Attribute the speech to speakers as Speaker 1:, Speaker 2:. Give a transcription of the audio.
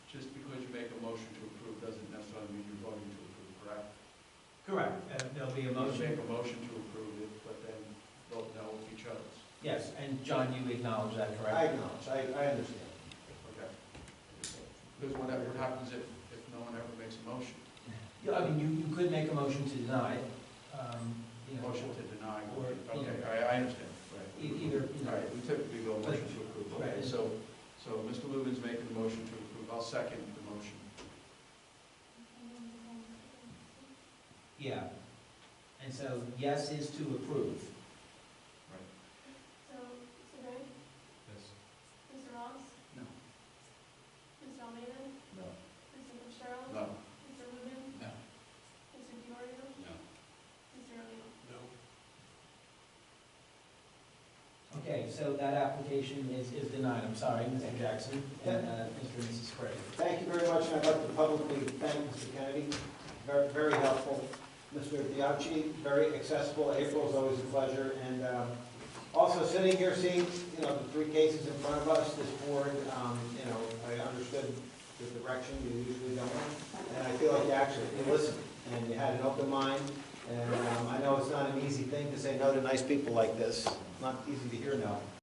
Speaker 1: Uh, And John, you acknowledge that, correct?
Speaker 2: I acknowledge, I, I understand.
Speaker 3: Okay. Because what what happens if, if no one ever makes a motion?
Speaker 1: Yeah, I mean, you, you could make a motion to deny it, um, you know.
Speaker 3: Motion to deny,
Speaker 1: Or, you
Speaker 3: okay,
Speaker 1: know.
Speaker 3: I, I understand.
Speaker 1: e- Either,
Speaker 3: All
Speaker 1: you know,
Speaker 3: right, we typically go motion to approve. Okay,
Speaker 1: Right.
Speaker 3: so, so Mr. Lubin's making the motion to approve, I'll second the motion.
Speaker 1: yeah. And so, yes is to approve.
Speaker 4: So, Mr. Gray, Mr. Ross,
Speaker 3: No.
Speaker 4: Mr. Almeida,
Speaker 3: No.
Speaker 4: Mr. Fitzgerald,
Speaker 3: No.
Speaker 4: Mr. Rubin,
Speaker 3: No.
Speaker 4: Mr. Diorio,
Speaker 3: No.
Speaker 4: Mr. O'Neill.
Speaker 1: Okay, so that application is, is denied, I'm sorry, Mr. Jackson, and, uh, Mr. and Mrs. Craig.
Speaker 2: Thank you very much, and I'd like to publicly thank Mr. Kennedy, very, very helpful. Mr. Diachi, very accessible, April is always a pleasure, and um, also sitting here, seeing, you know, the three cases in front of us, this board, um, you know, I understood the direction you usually don't, and I feel like you actually, you listened, and you had an open mind, and um, I know it's not an easy thing to say no to nice people like this, not easy to hear no.